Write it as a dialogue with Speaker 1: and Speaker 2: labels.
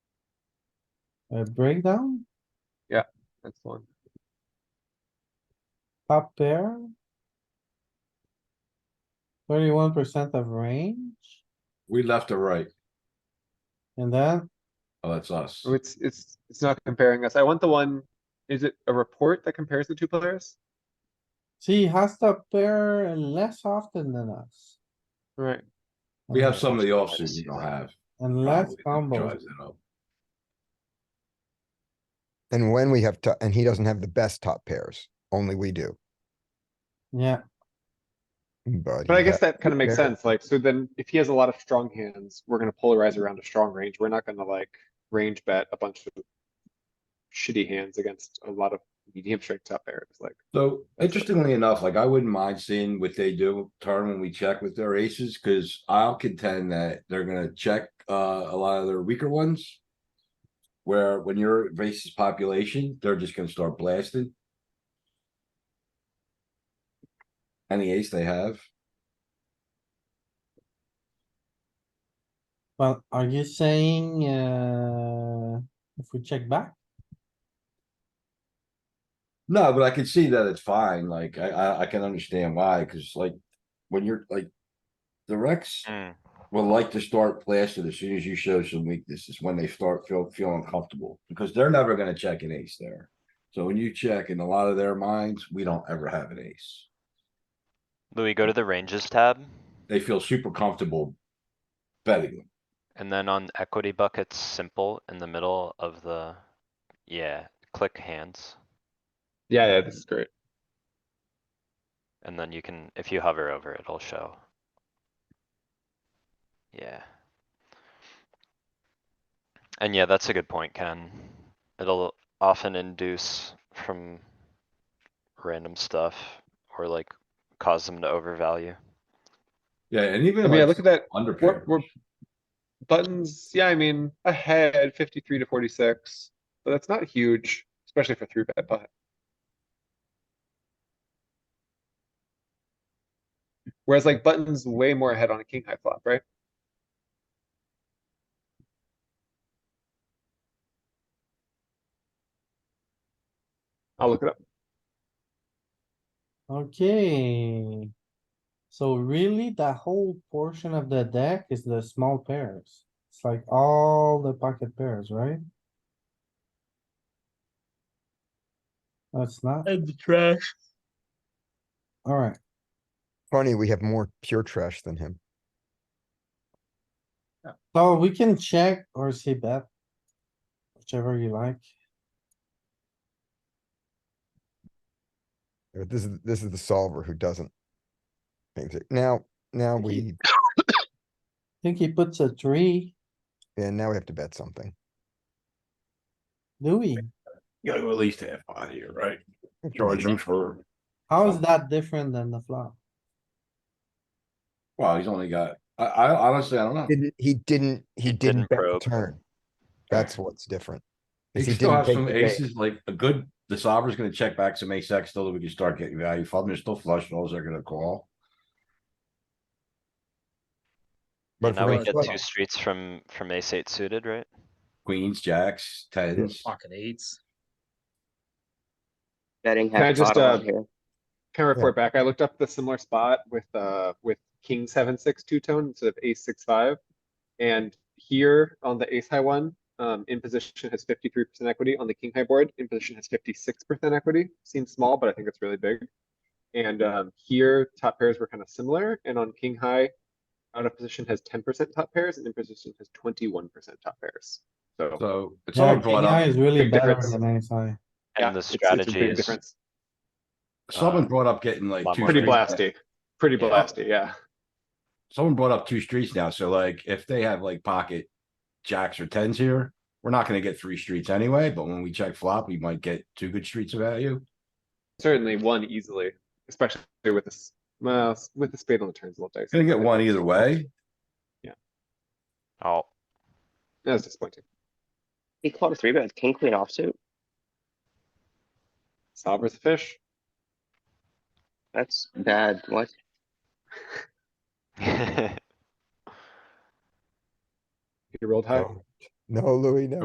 Speaker 1: A breakdown,
Speaker 2: That's one.
Speaker 1: top pair. Thirty-one percent of range,
Speaker 3: We left or right?
Speaker 1: and then
Speaker 3: Oh, that's us.
Speaker 2: Oh, It's, it's, it's not comparing us. I want the one, is it a report that compares the two players?
Speaker 1: see, he has to pair less often than us.
Speaker 2: Right.
Speaker 3: We have some of the
Speaker 2: Let's
Speaker 3: offsuit we
Speaker 2: see.
Speaker 3: don't have.
Speaker 1: And less
Speaker 3: probably that
Speaker 1: combos,
Speaker 3: drives it up.
Speaker 4: And when we have, to- and he doesn't have the best top pairs, only we do,
Speaker 1: yeah,
Speaker 4: but.
Speaker 2: But I
Speaker 4: he
Speaker 2: guess
Speaker 4: ha-
Speaker 2: that kind of makes
Speaker 4: Yeah.
Speaker 2: sense, like, so then if he has a lot of strong hands, we're gonna polarize around a strong range, we're not gonna like range bet a bunch of shitty hands against a lot of medium strength top pairs, like,
Speaker 3: So interestingly enough, like I wouldn't mind seeing what they do turn when we check with their aces, cuz I'll contend that they're gonna check uh a lot of their weaker ones. Where when you're racist population, they're just gonna start blasting. Any ace they have,
Speaker 1: well, are you saying, uh, if we check back?
Speaker 3: no, but I can see that it's fine, like I I I can understand why, cuz like when you're like. The Rex
Speaker 5: Mm.
Speaker 3: will like to start blasting as soon as you show some weaknesses, when they start feel, feeling comfortable, because they're never gonna check an ace there. So when you check in a lot of their minds, we don't ever have an ace.
Speaker 5: Louis, go to the ranges tab
Speaker 3: They feel super comfortable betting them.
Speaker 5: and then on equity buckets, simple in the middle of the, yeah, click hands.
Speaker 2: yeah, yeah, this is great.
Speaker 5: And then you can, if you hover over, it'll show. Yeah. And yeah, that's a good point, Ken. It'll often induce from random stuff or like cause them to overvalue.
Speaker 3: Yeah, and even
Speaker 2: I mean, I
Speaker 3: like
Speaker 2: look at that,
Speaker 3: under
Speaker 2: we're,
Speaker 3: pair,
Speaker 2: we're buttons, yeah, I mean, ahead fifty-three to forty-six, but that's not huge, especially for three bet, but. Whereas like buttons way more ahead on a king high flop, right? I'll look it up.
Speaker 1: Okay. So really, that whole portion of the deck is the small pairs. It's like all the pocket pairs, right? That's not,
Speaker 6: And the trash.
Speaker 1: alright,
Speaker 4: Funny, we have more pure trash than him.
Speaker 1: so we can check or see bet. Whichever you like.
Speaker 4: But This is, this is the solver who doesn't. think that- Now, now we,
Speaker 1: I think he puts a three,
Speaker 4: and now we have to bet something.
Speaker 1: Louis.
Speaker 7: You gotta go at least half pot here, right?
Speaker 4: That's
Speaker 7: Charge
Speaker 4: easy.
Speaker 7: him for,
Speaker 1: How is that different than the flop?
Speaker 3: wow, he's only got, I I honestly, I don't know.
Speaker 4: Didn't, he didn't, he
Speaker 5: He
Speaker 4: didn't
Speaker 5: didn't
Speaker 4: bet the
Speaker 5: probe.
Speaker 4: turn. That's what's different.
Speaker 3: He
Speaker 4: is he
Speaker 3: still
Speaker 4: didn't
Speaker 3: has
Speaker 4: take
Speaker 3: some
Speaker 4: the bait.
Speaker 3: aces, like a good, the solver's gonna check back some ace X still, that we can start getting value from, they're still flush draws, they're gonna call.
Speaker 4: But
Speaker 5: now
Speaker 4: for
Speaker 5: we
Speaker 4: us,
Speaker 5: get
Speaker 4: what-
Speaker 5: two streets from, from ace eight suited, right?
Speaker 3: Queens, jacks, tens.
Speaker 6: Pocket eights.
Speaker 8: Betting
Speaker 2: Can I
Speaker 8: half
Speaker 2: just,
Speaker 8: pot on
Speaker 2: uh,
Speaker 8: here.
Speaker 2: Can I report back? I looked up the similar spot with, uh, with king seven, six, two tone instead of ace six, five. And here on the ace high one, um, in position has fifty-three percent equity. On the king high board, in position has fifty-six percent equity. Seems small, but I think it's really big. And, um, here top pairs were kind of similar and on king high, out of position has ten percent top pairs and in position has twenty-one percent top pairs. So.
Speaker 3: So it's all
Speaker 1: Yeah,
Speaker 3: brought
Speaker 1: king high
Speaker 3: up,
Speaker 1: is really
Speaker 2: Big
Speaker 1: better
Speaker 2: difference.
Speaker 1: than ace high.
Speaker 2: yeah,
Speaker 5: And the
Speaker 2: it's- it's a
Speaker 5: strategy
Speaker 2: big
Speaker 5: is
Speaker 2: difference.
Speaker 3: someone
Speaker 5: uh,
Speaker 3: brought up getting like.
Speaker 5: lot
Speaker 3: two
Speaker 5: more
Speaker 2: Pretty
Speaker 3: straight bets.
Speaker 2: blasty, pretty
Speaker 5: Yeah.
Speaker 2: blasty, yeah.
Speaker 3: someone brought up two streets now, so like if they have like pocket jacks or tens here, we're not gonna get three streets anyway, but when we check flop, we might get two good streets of value.
Speaker 2: Certainly one easily, especially with this, well, s- with the spade on the turns a little dicey.
Speaker 3: Gonna get one either way.
Speaker 5: Oh,
Speaker 2: That's disappointing.
Speaker 8: He called a three bet with king queen offsuit.
Speaker 2: Solver's a fish.
Speaker 8: That's bad. What?
Speaker 2: He rolled high.
Speaker 4: No, No, Louis, no.